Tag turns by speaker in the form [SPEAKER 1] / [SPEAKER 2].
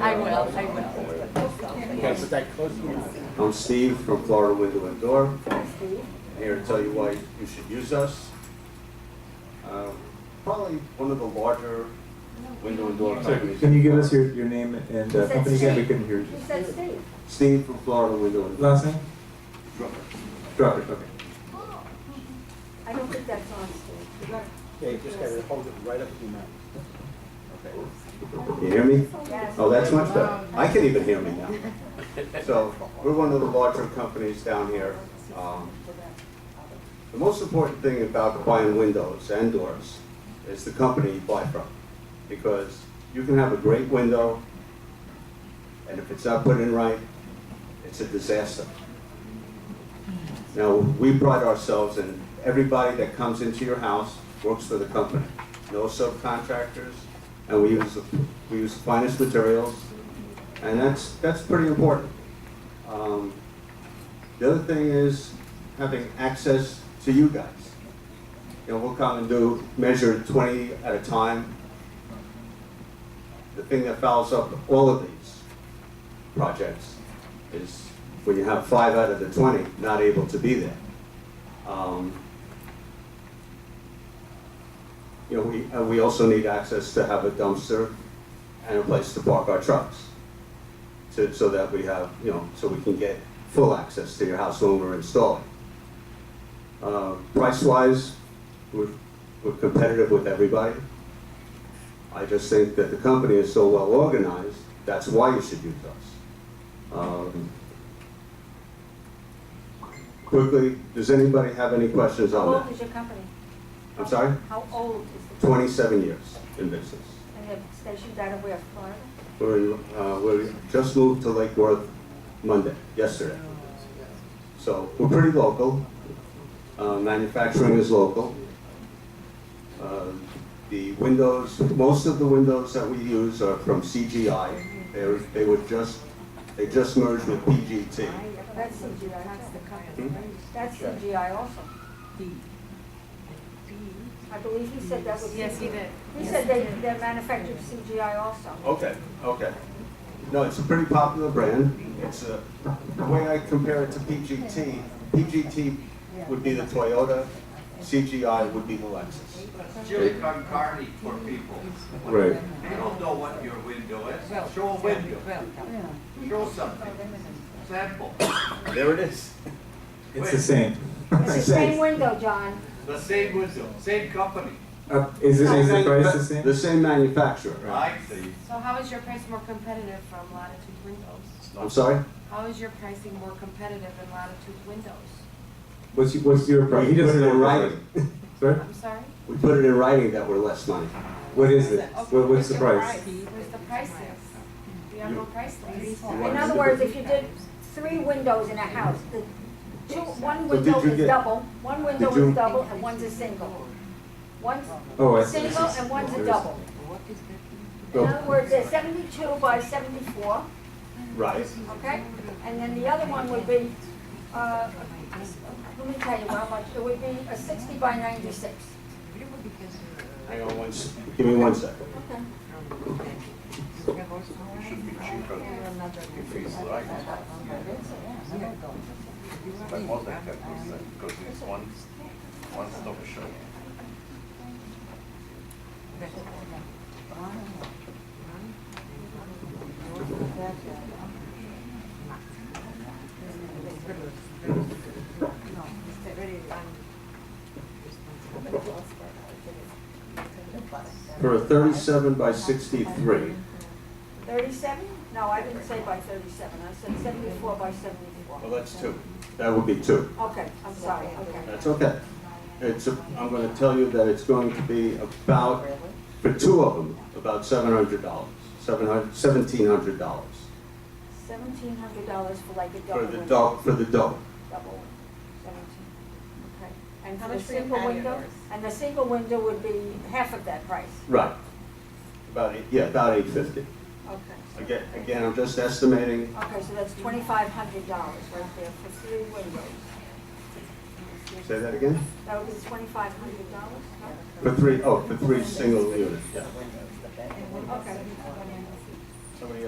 [SPEAKER 1] I will, I will.
[SPEAKER 2] Okay, put that close to your mouth.
[SPEAKER 3] I'm Steve from Florida Window and Door. Here to tell you why you should use us. Um, Probably one of the larger window and door companies.
[SPEAKER 4] Can you give us your, your name and uh, company again? We couldn't hear you.
[SPEAKER 1] He said Steve.
[SPEAKER 3] Steve from Florida Window and Door.
[SPEAKER 4] Last name? Drucker, okay.
[SPEAKER 1] I don't think that's on Steve.
[SPEAKER 2] Okay, you just gotta hold it right up to your mouth.
[SPEAKER 3] Can you hear me?
[SPEAKER 1] Yes.
[SPEAKER 3] Oh, that's much better. I can even hear me now. So, we're one of the larger companies down here. Um, The most important thing about buying windows and doors is the company you buy from. Because you can have a great window, and if it's not put in right, it's a disaster. Now, we pride ourselves in everybody that comes into your house works for the company. No subcontractors, and we use, the- we use the finest materials, and that's, that's pretty important. Um, The other thing is having access to you guys. You know, we'll come and do, measure twenty at a time. The thing that fouls up all of these projects is when you have five out of the 20 not able to be there. Um, You know, we, and we also need access to have a dumpster and a place to park our trucks. To, so that we have, you know, so we can get full access to your house when we're installing. Uh, price-wise, we're, we're competitive with everybody. I just think that the company is so well organized, that's why you should use us. Um, Quickly, does anybody have any questions
[SPEAKER 1] How
[SPEAKER 3] on
[SPEAKER 1] old
[SPEAKER 3] that?
[SPEAKER 1] is your company?
[SPEAKER 3] I'm sorry?
[SPEAKER 1] How old is the?
[SPEAKER 3] Twenty-seven years in business.
[SPEAKER 1] And they're stationed out of where, Florida?
[SPEAKER 3] We're, uh, we just moved to Lake Worth Monday, yesterday. So we're pretty local. Uh, manufacturing is local. Uh, The windows, most of the windows that we use are from CGI. They were, they were just, they just merged with PGT.
[SPEAKER 1] That's CGI, that's the company.
[SPEAKER 3] Hmm?
[SPEAKER 1] That's CGI also. I believe he said that was.
[SPEAKER 5] Yes, he
[SPEAKER 1] CGI.
[SPEAKER 5] did.
[SPEAKER 1] He said they, they're manufactured CGI also.
[SPEAKER 3] Okay, okay. No, it's a pretty popular brand. It's a, the way I compare it to PGT, PGT would be the Toyota, CGI would be the Lexus.
[SPEAKER 6] Jim Concarney for people.
[SPEAKER 4] Right.
[SPEAKER 6] They don't know what your window is. Show a window. Show something. Sample.
[SPEAKER 3] There it is.
[SPEAKER 4] It's the same.
[SPEAKER 1] It's the same window, John.
[SPEAKER 6] The same window, same company.
[SPEAKER 4] Uh, Is it, is the price the same?
[SPEAKER 3] The same manufacturer, right?
[SPEAKER 6] I see.
[SPEAKER 5] So how is your price more competitive from Latitude Windows?
[SPEAKER 3] I'm sorry?
[SPEAKER 5] How is your pricing more competitive than Latitude Windows?
[SPEAKER 4] What's, your- what's your price?
[SPEAKER 3] We put it
[SPEAKER 4] What's
[SPEAKER 3] in
[SPEAKER 4] your
[SPEAKER 3] writing.
[SPEAKER 4] price? Sorry?
[SPEAKER 5] I'm sorry?
[SPEAKER 3] We put it in writing that we're less money.
[SPEAKER 4] What is it?
[SPEAKER 5] Okay,
[SPEAKER 4] What, what's the
[SPEAKER 5] your
[SPEAKER 4] price?
[SPEAKER 5] What's the prices? We have no price list.
[SPEAKER 1] In other words, if you did three windows in a house, the two, one
[SPEAKER 3] But did
[SPEAKER 1] window
[SPEAKER 3] you
[SPEAKER 1] is
[SPEAKER 3] get-
[SPEAKER 1] double, one window
[SPEAKER 3] did you-
[SPEAKER 1] is double and one's a single. One's
[SPEAKER 4] Oh, I see.
[SPEAKER 1] single and one's a
[SPEAKER 4] There's-
[SPEAKER 1] double. In other words, they're seventy-two by seventy-four,
[SPEAKER 3] Right.
[SPEAKER 1] okay? And then the other one would be, uh, let me tell you how much, it would be a sixty by ninety-six.
[SPEAKER 3] Hang on one second. Give me one second.
[SPEAKER 1] Okay.
[SPEAKER 7] But more than that, because it's one, one stop shop.
[SPEAKER 3] For a thirty-seven by sixty-three,
[SPEAKER 1] Thirty-seven? No, I didn't say by thirty-seven, I said seventy-four by seventy-four.
[SPEAKER 3] well, that's two. That would be two.
[SPEAKER 1] Okay, I'm sorry, okay.
[SPEAKER 3] That's okay. It's, a- I'm gonna tell you that it's going to be about, for two of them, about seven hundred dollars, seven hundred, seventeen hundred dollars.
[SPEAKER 1] Seventeen hundred dollars for like a double
[SPEAKER 3] For the
[SPEAKER 1] window.
[SPEAKER 3] dog, for the dog.
[SPEAKER 1] Double window, seventeen, okay. And
[SPEAKER 5] How
[SPEAKER 1] for the
[SPEAKER 5] much for your
[SPEAKER 1] single
[SPEAKER 5] patio
[SPEAKER 1] window,
[SPEAKER 5] doors?
[SPEAKER 1] and the single window would be half of that price,
[SPEAKER 3] Right. About eight, yeah, about eight fifty.
[SPEAKER 1] okay.
[SPEAKER 3] Again, again, I'm just estimating,
[SPEAKER 1] Okay, so that's twenty-five hundred dollars right there for three windows.
[SPEAKER 3] say that again?
[SPEAKER 1] That would be twenty-five hundred dollars,
[SPEAKER 3] For three, oh, for three single units, yeah.
[SPEAKER 1] Okay.
[SPEAKER 3] Somebody